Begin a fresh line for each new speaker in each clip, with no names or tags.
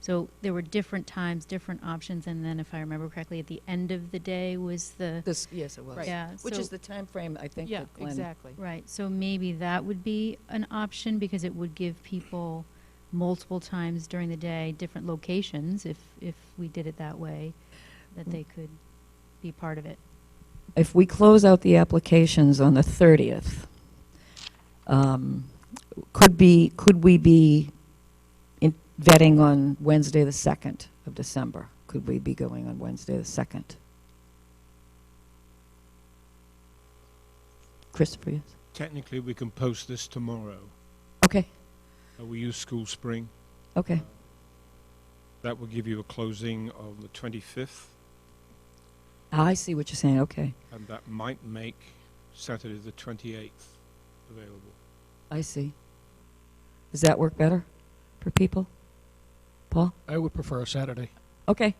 So there were different times, different options, and then if I remember correctly, at the end of the day was the,
This, yes, it was.
Right.
yeah.
Which
so-
is the time frame I think,
Yeah,
that Glenn.
exactly.
Right, so maybe that would be an option because it would give people multiple times during the day, different locations, if, if we did it that way, that they could be part of it.
If we close out the applications on the 30th, um, could be, could we be in- vetting on Wednesday, the 2nd of December? Could we be going on Wednesday, the 2nd? Christopher, yes?
Technically, we can post this tomorrow.
Okay,
Uh, We use School Spring.
okay.
That will give you a closing on the 25th,
Ah, I see what you're saying, okay.
and that might make Saturday the 28th available.
I see. Does that work better for people? Paul?
I would prefer a Saturday.
Okay,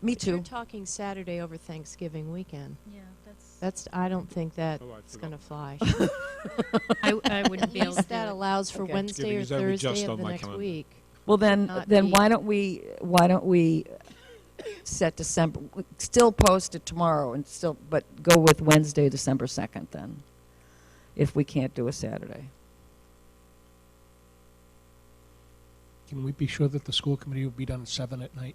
me
But You're
too.
talking Saturday over Thanksgiving weekend.
Yeah, that's.
That's, I don't think that's
Oh, I forgot.
going to fly.
I, I wouldn't
At
be able to
least
do
that
it.
allows for
Okay.
Wednesday
Giving
or
is over just
Thursday of
on
the
my
next
calendar.
week.
Well, then,
Not
then
be-
why don't we, why don't we set December, still post it tomorrow and still, but go with Wednesday, December 2nd then, if we can't do a Saturday.
Can we be sure that the school committee will be done at seven at night?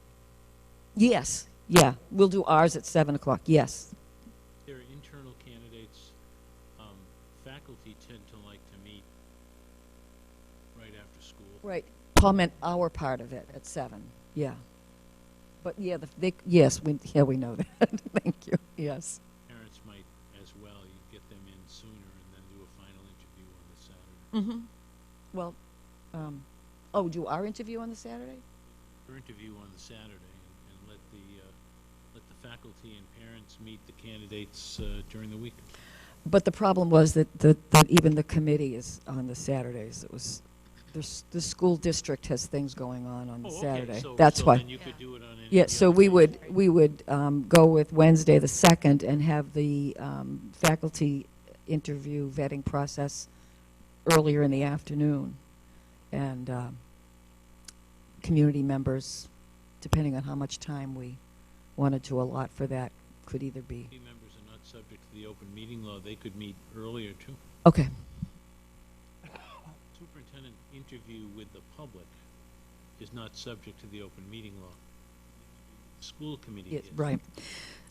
Yes, yeah, we'll do ours at 7 o'clock, yes.
There are internal candidates. Um, faculty tend to like to meet right after school.
Right. Paul meant our part of it at 7, yeah. But yeah, the- they, yes, we, yeah, we know that, thank you, yes.
Parents might as well, you get them in sooner and then do a final interview on the Saturday.
Mm-hmm. Well, um, oh, do our interview on the Saturday?
Or interview on the Saturday and, and let the, uh, let the faculty and parents meet the candidates, uh, during the weekend.
But the problem was that, that, that even the committee is on the Saturdays. It was, the, s- the school district has things going on on the
Oh, okay,
Saturday.
so-
That's
so
why.
then you could do it on any
Yeah,
of the
so
other
we
days.
would, we would, um, go with Wednesday the second and have the, um, faculty interview vetting process earlier in the afternoon. And, um, community members, depending on how much time we wanted to allot for that, could either be,
Committee members are not subject to the open meeting law. They could meet earlier too.
okay.
Superintendent interview with the public is not subject to the open meeting law. School committee
Yes,
is.
right.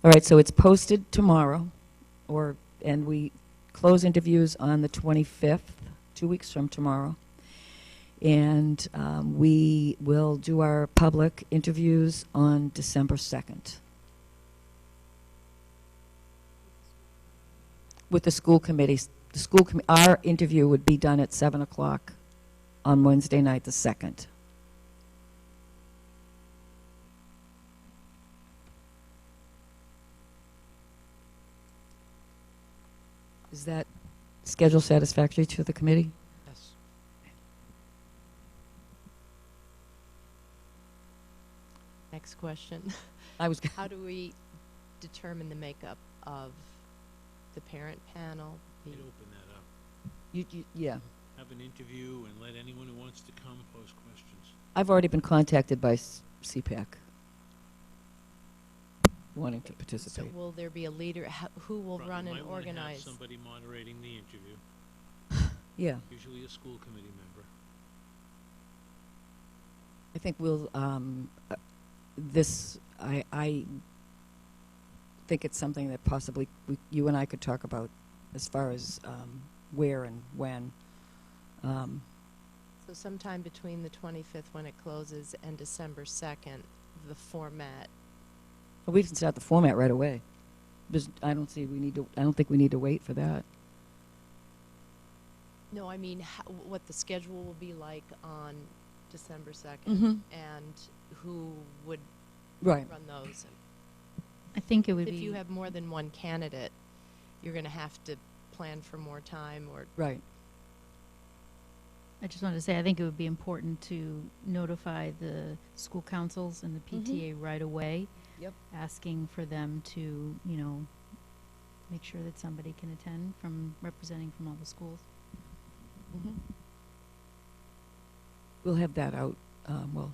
All right, so it's posted tomorrow, or, and we close interviews on the 25th, two weeks from tomorrow. And um, we will do our public interviews on December 2nd. With the school committees, the school, commi- our interview would be done at 7 o'clock on Wednesday night, the 2nd. Is that schedule satisfactory to the committee?
Yes.
Next question.
I was,
How do we determine the makeup of the parent panel? The-
They'd open that up.
you, you, yeah.
Have an interview and let anyone who wants to come pose questions.
I've already been contacted by s- CPAC wanting to
So
participate.
will there be a leader? Ho- Who will
Probably
run and
might wanna have
organize?
Somebody moderating the interview,
Yeah,
usually a school committee member.
I think we'll, um, uh, this, I, I think it's something that possibly we, you and I could talk about as far as, um, where and when. Um,
So sometime between the 25th when it closes and December 2nd, the format.
but we can start the format right away. There's, I don't see we need to, I don't think we need to wait for that.
No, I mean, how, what the schedule will be like on December 2nd
Mm-hmm.
Mhm.
and who would
Right.
run those.
I think it would
if you
be,
have more than one candidate, you're going to have to plan for more time or
Right.
I just wanted to say, I think it would be important to notify the school councils and the
Mm-hmm.
Mhm.
PTA right away.
Yep.
Asking for them to, you know, make sure that somebody can attend from, representing from all the schools.
We'll have that out, um, well,